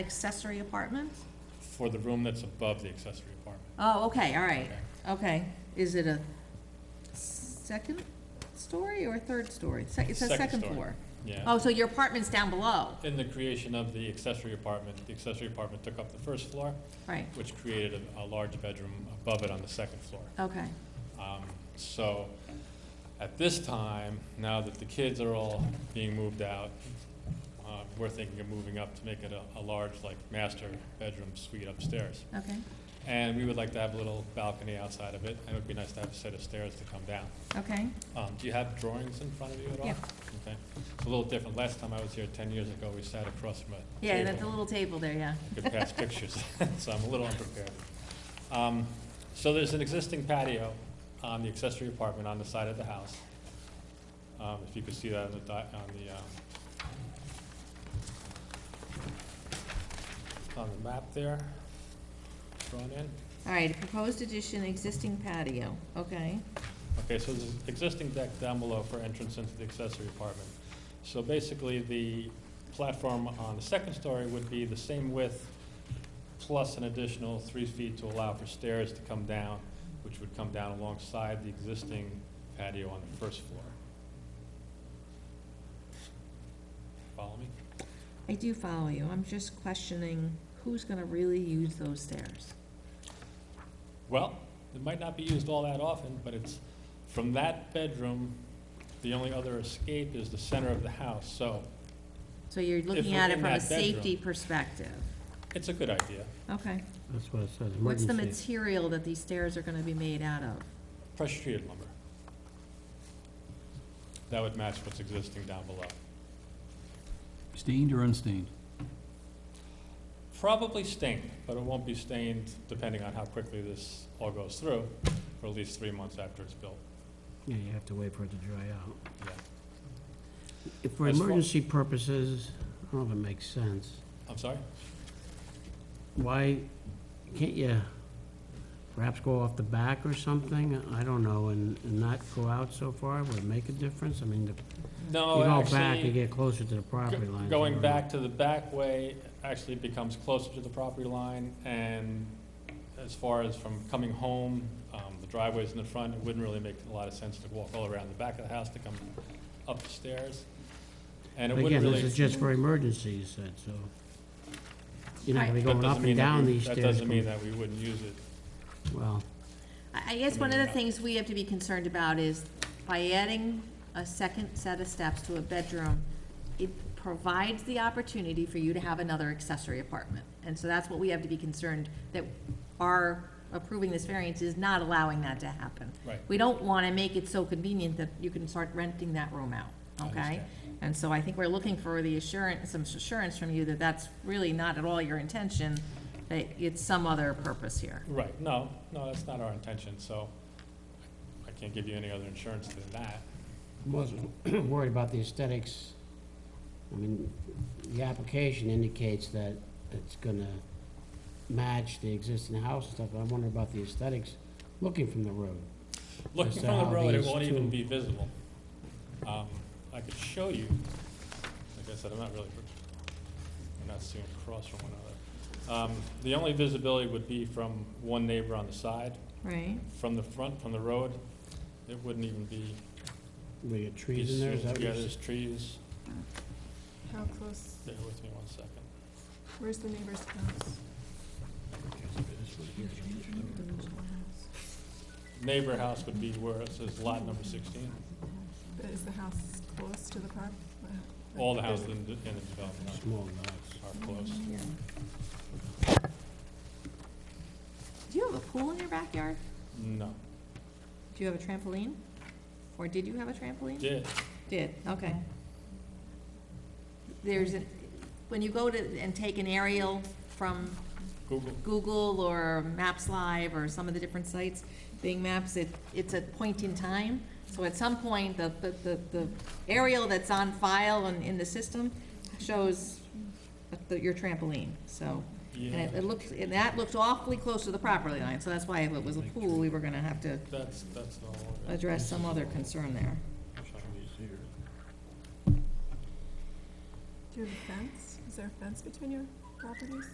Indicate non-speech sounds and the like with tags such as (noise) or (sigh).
Accessory apartment? for the room that's above the accessory apartment. Oh, okay, all right, okay. Is it a second story or a third story? Se- It's a Second second story. floor. Yeah. Oh, so your apartment's down below, In the creation of the accessory apartment, the accessory apartment took up the first floor, right, which created a, a large bedroom above it on the second floor. okay, Um, So, at this time, now that the kids are all being moved out, uh, we're thinking of moving up to make it a, a large, like, master bedroom suite upstairs. okay, And we would like to have a little balcony outside of it, and it would be nice to have a set of stairs to come down. okay. Um, do you have drawings in front of you at all? Yeah. Okay, it's a little different. Last time I was here ten years ago, we sat across from a table. Yeah, and at the little table there, yeah. (laughs) Could pass pictures, (laughs) so I'm a little unprepared. Um, so there's an existing patio on the accessory apartment on the side of the house. Um, if you could see that on the di- on the, um, on the map there, drawn in. All right, proposed addition, existing patio, okay, Okay, so there's an existing deck down below for entrance into the accessory apartment. So basically, the platform on the second story would be the same width plus an additional three feet to allow for stairs to come down, which would come down alongside the existing patio on the first floor. Follow me? I do follow you, I'm just questioning who's gonna really use those stairs? Well, it might not be used all that often, but it's, from that bedroom, the only other escape is the center of the house, so So you're looking we're at it in from a that bedroom. safety perspective, it's a good idea. okay. That's what it says, What's the emergency. material that these stairs are gonna be made out of? pressure treated lumber. That would match what's existing down below. Stained or unstained? Probably stained, but it won't be stained depending on how quickly this all goes through, for at least three months after it's built. Yeah, you have to wait for it to dry out. Yeah. If For As far- emergency purposes, I don't know if it makes sense. I'm sorry? Why, can't you perhaps go off the back or something? I don't know, and and not go out so far, would it make a difference? I mean, if you No, go back, you Oh, actually, get closer to the property go- line. going back to the back way actually becomes closer to the property line, and as far as from coming home, um, the driveway's in the front, it wouldn't really make a lot of sense to walk all around the back of the house to come up the stairs. And it But wouldn't Again, really. this is just for emergencies, you said, so. You're not gonna That be going doesn't up and mean that down we- these stairs. That doesn't mean going- that we wouldn't use it. Well, I I guess one of the things we have to be concerned about is by adding a second set of steps to a bedroom, it provides the opportunity for you to have another accessory apartment. And so that's what we have to be concerned, that our approving this variance is not allowing that to happen. Right. We don't want to make it so convenient that you can start renting that room out, I okay? understand. And so I think we're looking for the assurance, some assurance from you that that's really not at all your intention, that it's some other purpose here. Right, no, no, that's not our intention, so I can't give you any other insurance than that. wasn't (clears throat) worried about the aesthetics. I mean, the application indicates that it's gonna match the existing house and stuff, but I wonder about the aesthetics, looking from the road. Looking Just from the how road, it these won't even two- be visible. Um, I could show you, like I said, I'm not really, I'm not seeing across from one another. Um, The only visibility would be from one neighbor on the side, Right. from the front, from the road. It wouldn't even be. Were your be trees in there, is seen. that what Yeah, you're there's trees. How close, Bear with me one second. where's the neighbor's house? neighbor house would be where it says lot number sixteen. But Is the house close to the park? Uh, All the houses in the, in the development Small lots. are, are close. Do you have a pool in your backyard? No, Do you have a trampoline? Or did you have a trampoline? did, Did, okay. There's, a- when you go to, and take an aerial from Google, Google or Maps Live or some of the different sites, Bing Maps, it, it's a point in time. So at some point, the, the- the, the aerial that's on file and in the system shows the- your trampoline, so. And yeah, it- it looked, and that looked awfully close to the property line, so that's why if it was a pool, we were gonna have to that's, that's not all of it. address some other concern there. Do you have a fence? Is there a fence between your properties?